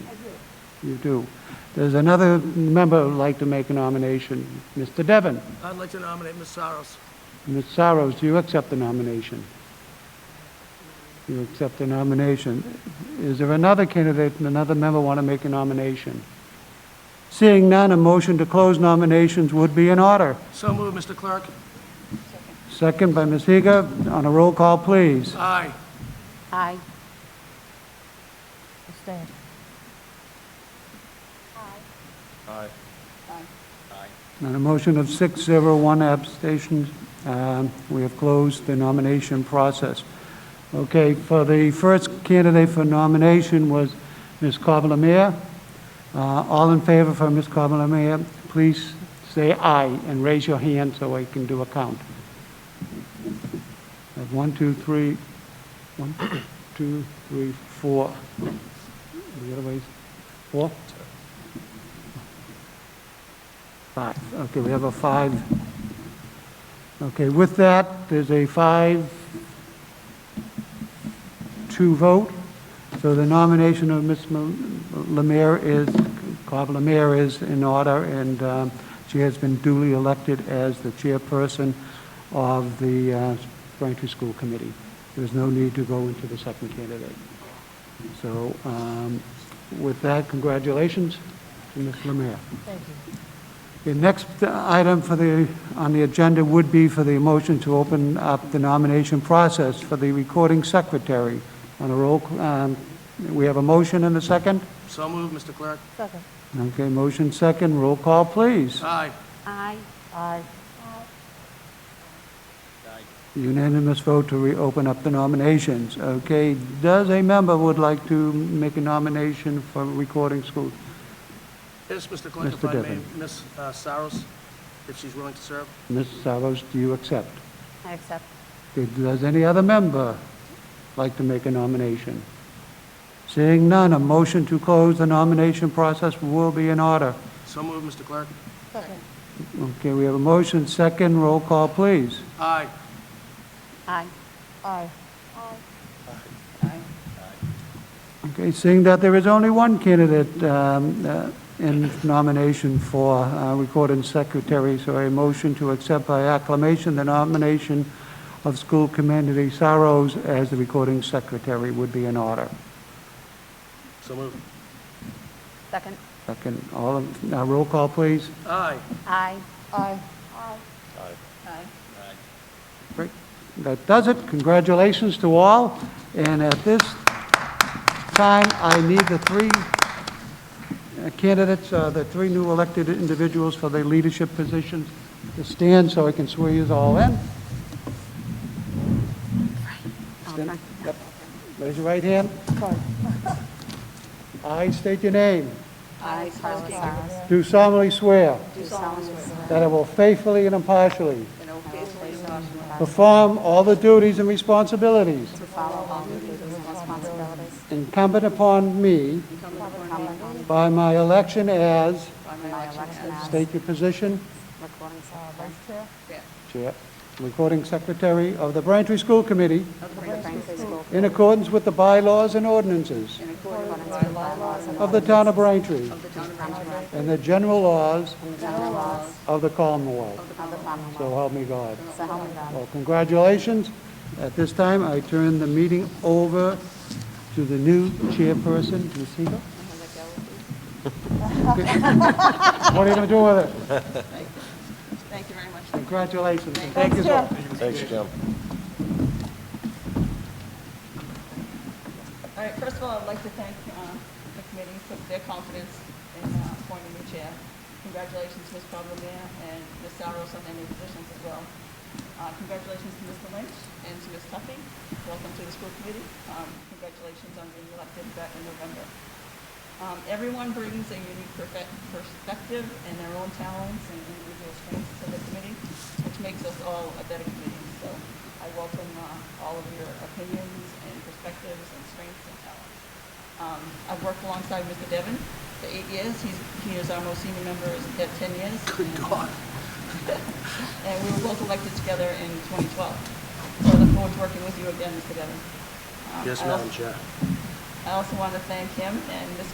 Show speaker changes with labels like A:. A: You do. Does another member who'd like to make a nomination? Mr. Devon?
B: I'd like to nominate Ms. Saros.
A: Ms. Saros, do you accept the nomination? You accept the nomination. Is there another candidate, another member want to make a nomination? Seeing none, a motion to close nominations would be in order.
B: So moved, Mr. Clerk.
A: Second by Ms. Higa. On a roll call, please.
B: Aye.
C: Aye. Abstain.
A: On a motion of six, zero, one abstention, um, we have closed the nomination process. Okay, for the first candidate for nomination was Ms. Cobbler-Mayer. Uh, All in favor for Ms. Cobbler-Mayer, please say aye and raise your hand so I can do a count. That's One, two, three, one, two, three, four. The other way, four? Five, okay, we have a five. Okay, with that, there's a five, two vote. So the nomination of Ms. Ma- Lemire is, Cobb Lemire is in order, and um, she has been duly elected as the chairperson of the uh, Braintree School Committee. There's no need to go into the second candidate. So um, with that, congratulations to Ms. Lemire.
C: Thank you.
A: The next item for the, on the agenda would be for the motion to open up the nomination process for the recording secretary. On a roll, um, we have a motion and a second?
B: So moved, Mr. Clerk.
C: Second.
A: Okay, motion second, roll call, please.
B: Aye.
C: Aye. Aye.
A: Unanimous vote to reopen up the nominations. Okay, does a member would like to make a nomination for recording school?
B: Yes, Mr. Clerk, if
A: Mr.
B: I may,
A: Devon.
B: Ms. uh, Saros, if she's willing to serve.
A: Ms. Saros, do you accept?
C: I accept.
A: Did- Does any other member like to make a nomination? Seeing none, a motion to close the nomination process will be in order.
B: So moved, Mr. Clerk.
C: Second.
A: Okay, we have a motion, second, roll call, please.
B: Aye.
C: Aye. Aye.
A: Okay, seeing that there is only one candidate um, uh, in nomination for uh, recording secretary, so a motion to accept by acclamation the nomination of school committee Saros as the recording secretary would be in order.
B: So moved.
C: Second.
A: Second, all, in- uh, roll call, please.
B: Aye.
C: Aye. Aye. Aye. Aye.
A: Great. That does it. Congratulations to all. And at this time, I need the three uh, candidates, uh, the three new elected individuals for the leadership positions to stand so I can swear you all in. Stand- Yep. Raise your right hand. I state your name.
C: I, Carla Saros,
A: Do solemnly swear
C: do solemnly swear
A: that I will faithfully and impartially
C: that I will faithfully and impartially
A: perform all the duties and responsibilities
C: follow all the duties and responsibilities
A: incumbent upon me
C: incumbent on me
A: by my election as,
C: by my election as
A: state your position,
C: recording secretary
A: Chair, Recording Secretary of the Braintree School Committee,
C: of the Braintree School
A: in accordance with the bylaws and ordinances
C: in accordance with bylaws and
A: of the town of Braintree
C: ordinances
A: and the general laws
C: and general laws
A: of the Commonwealth.
C: of the Commonwealth.
A: So help me God.
C: So help me God.
A: Well, congratulations. At this time, I turn the meeting over to the new chairperson, Ms. Siegel. What are you going to do with it?
D: Thank you very much.
A: Congratulations. and Thank you. so-
E: Thanks, Jim.
D: All right, first of all, I'd like to thank uh, the committee for their confidence in uh, appointing me chair. Congratulations, Ms. Cobblemere, and Ms. Saros on their new positions as well. Uh, Congratulations to Mr. Lynch and to Ms. Tuffy. Welcome to the school committee. Um, Congratulations on being elected back in November. Um, Everyone brings a unique perfe- perspective and their own talents and individual strengths to the committee, which makes us all a better committee. So I welcome uh, all of your opinions and perspectives and strengths and talents. Um, I've worked alongside Mr. Devon for eight years. He's, he is our most senior member at 10 years.
B: Good
D: and,
B: God.
D: and we were both elected together in 2012. So I look forward to working with you again, Mr. Devon. Um,
B: Yes,
D: I
B: Madam
D: also-
B: Chair.
D: I also want to thank him and Ms.